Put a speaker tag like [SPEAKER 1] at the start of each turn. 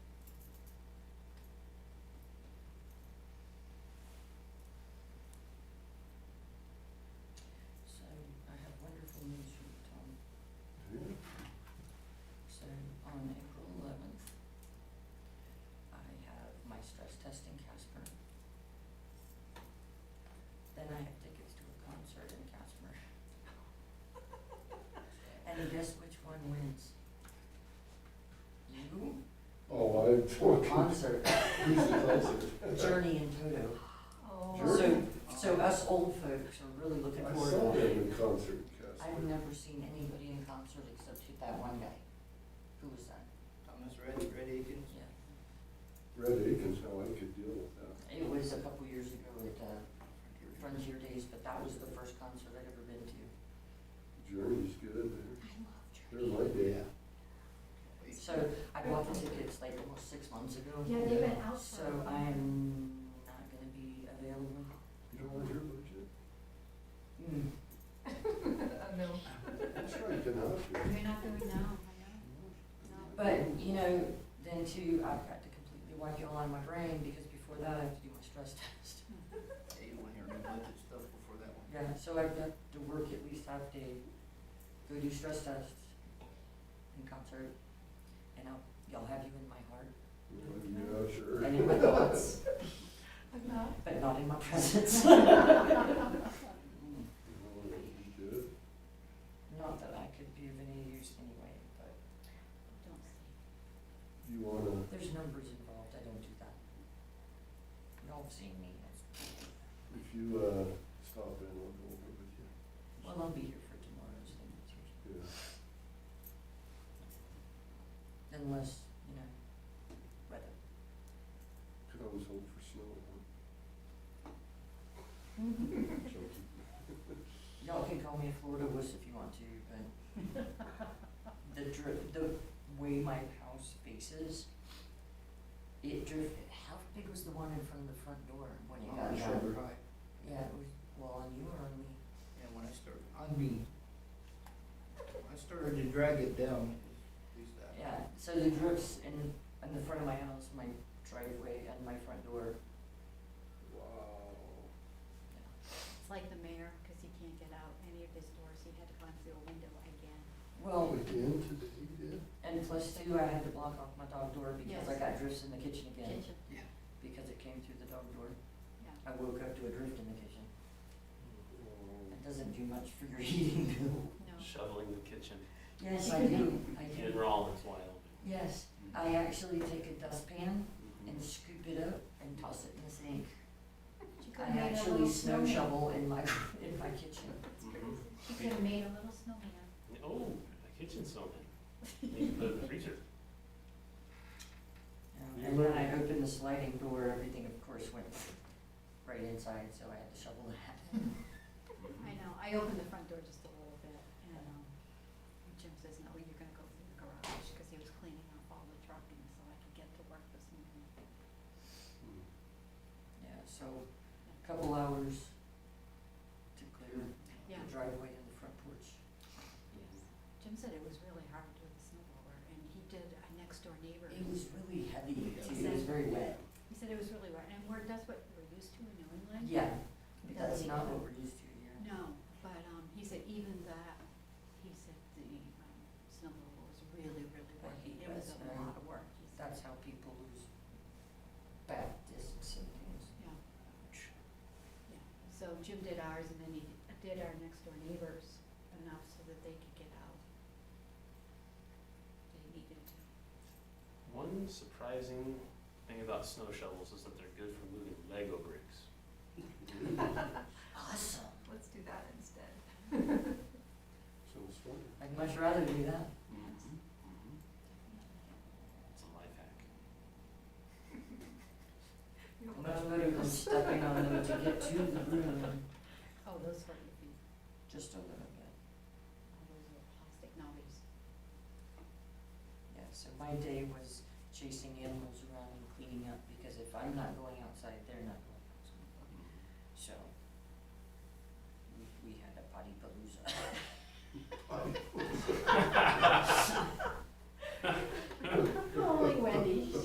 [SPEAKER 1] and fourteen.
[SPEAKER 2] concert,
[SPEAKER 1] Journey.
[SPEAKER 2] Journey in Toto.
[SPEAKER 1] Journey.
[SPEAKER 2] So, so us old folks are really looking
[SPEAKER 1] I
[SPEAKER 2] forward
[SPEAKER 1] saw
[SPEAKER 2] to
[SPEAKER 1] them
[SPEAKER 2] it.
[SPEAKER 1] in concert,
[SPEAKER 2] I've
[SPEAKER 1] Casper.
[SPEAKER 2] never seen anybody in concert except who- that one guy. Who was that?
[SPEAKER 3] Thomas Red, Red Akins.
[SPEAKER 2] Yeah.
[SPEAKER 1] Red Akins, how I could deal with that.
[SPEAKER 2] It was a couple years ago at uh, Frontier Days, but that was the first concert I'd ever been to.
[SPEAKER 1] Journey's good,
[SPEAKER 2] I love
[SPEAKER 1] they're,
[SPEAKER 2] Journey.
[SPEAKER 1] they're my day.
[SPEAKER 2] So I bought the tickets like almost six months ago.
[SPEAKER 4] Yeah, they've been out
[SPEAKER 2] So
[SPEAKER 4] for. a while.
[SPEAKER 2] I'm not gonna be available.
[SPEAKER 1] You don't want your budget?
[SPEAKER 4] No,
[SPEAKER 1] That's right, get out here.
[SPEAKER 4] you're not going now, I know,
[SPEAKER 2] But, you know, then too, I've got to completely wipe you all out of my brain because before that I have to do my stress test.
[SPEAKER 3] Yeah, you wanna hear new budget stuff before that one.
[SPEAKER 2] Yeah, so I've got to work at least half day, go do stress tests and concert, and I'll, y'all have you in my heart
[SPEAKER 1] Well, Yeah, sure.
[SPEAKER 2] and in my thoughts,
[SPEAKER 4] no. No.
[SPEAKER 2] but not in my presence.
[SPEAKER 1] Well, you did.
[SPEAKER 2] Not that I could be of any use anyway, but
[SPEAKER 1] You wanna,
[SPEAKER 2] there's numbers involved, I don't do that. Y'all have seen me,
[SPEAKER 1] if you, uh, stop in, I'll go over with you.
[SPEAKER 2] well, I'll be here for tomorrow's thing,
[SPEAKER 1] Yeah.
[SPEAKER 2] unless, you know, weather.
[SPEAKER 1] Could always hope for snow.
[SPEAKER 2] Mm-hmm.
[SPEAKER 1] huh? Joking.
[SPEAKER 2] Y'all can call me a Florida wuss if you want to, but the dri the way my house faces, it drift, how big was the one in front of the front door when you got
[SPEAKER 3] Oh, I'm
[SPEAKER 2] there?
[SPEAKER 3] sure high.
[SPEAKER 2] Yeah, it was, well, on you or on me?
[SPEAKER 3] Yeah, when I started, on me, when I started to drag it down, at least that.
[SPEAKER 2] Yeah, so the drifts in, in the front of my house, my driveway and my front door,
[SPEAKER 1] Wow.
[SPEAKER 4] It's like the mayor, because he can't get out any of his doors, he had to climb through a window again.
[SPEAKER 2] well,
[SPEAKER 1] Again today, you did?
[SPEAKER 2] and plus too, I had to block off my dog door because I
[SPEAKER 4] Yes.
[SPEAKER 2] got drifts in the kitchen again,
[SPEAKER 4] Kitchen,
[SPEAKER 3] Yeah.
[SPEAKER 2] because it came through the dog door.
[SPEAKER 4] yeah.
[SPEAKER 2] I woke up to a drift in the kitchen.
[SPEAKER 1] Um,
[SPEAKER 2] It doesn't do much for your heating bill.
[SPEAKER 4] No,
[SPEAKER 5] shoveling the kitchen.
[SPEAKER 2] Yes, I do, I
[SPEAKER 5] In
[SPEAKER 2] do.
[SPEAKER 5] Rollins, Wyoming.
[SPEAKER 2] Yes, I actually take a dustpan and scoop it up and toss it in the sink.
[SPEAKER 4] she could have
[SPEAKER 2] I
[SPEAKER 4] made a
[SPEAKER 2] actually
[SPEAKER 4] little
[SPEAKER 2] snow
[SPEAKER 4] snowman.
[SPEAKER 2] shovel in my, in my kitchen.
[SPEAKER 5] Mhm.
[SPEAKER 4] She could have made a little snowman.
[SPEAKER 5] Oh, the kitchen's on it. Need to put it in the freezer.
[SPEAKER 2] Um, And when I opened the sliding door, everything of course went right inside, so I had to shovel that.
[SPEAKER 4] I know, I opened the front door just a little bit, and, um, Jim says, no, you're gonna go through the garage, because he was cleaning up all the trucking, so I could get to work this morning.
[SPEAKER 2] Yeah, so a couple hours to clear
[SPEAKER 4] Yeah.
[SPEAKER 2] the driveway and the front porch.
[SPEAKER 4] Jim said it was really hard with the snow blower, and he did a next door neighbor.
[SPEAKER 2] It was really heavy too, it was
[SPEAKER 4] Exactly.
[SPEAKER 2] very wet.
[SPEAKER 4] He said it was really wet, and we're, that's what we're used to in New England.
[SPEAKER 2] Yeah, that's not what we're used to here.
[SPEAKER 4] No, but, um, he said even that, he said the, um, snow blower was really, really
[SPEAKER 2] Well,
[SPEAKER 4] working,
[SPEAKER 2] he
[SPEAKER 4] it was
[SPEAKER 2] does,
[SPEAKER 4] a
[SPEAKER 2] uh,
[SPEAKER 4] lot of work, he said.
[SPEAKER 2] That's how people lose back discs and things.
[SPEAKER 4] Yeah, yeah, so Jim did ours, and then he did our next door neighbors enough so that they could get out. They needed to.
[SPEAKER 5] One surprising thing about snow shovels is that they're good for moving Lego bricks.
[SPEAKER 2] Awesome.
[SPEAKER 4] Let's do that instead.
[SPEAKER 1] Sounds fun.
[SPEAKER 2] I'd much rather do that.
[SPEAKER 5] Mhm, mhm. It's a life hack.
[SPEAKER 2] Much better than stepping on them to get to the room,
[SPEAKER 4] Oh, those were, oh,
[SPEAKER 2] just a little bit.
[SPEAKER 4] those were plastic knobbies.
[SPEAKER 2] Yeah, so my day was chasing animals around and cleaning up, because if I'm not going outside, they're not going
[SPEAKER 5] Mm-hmm.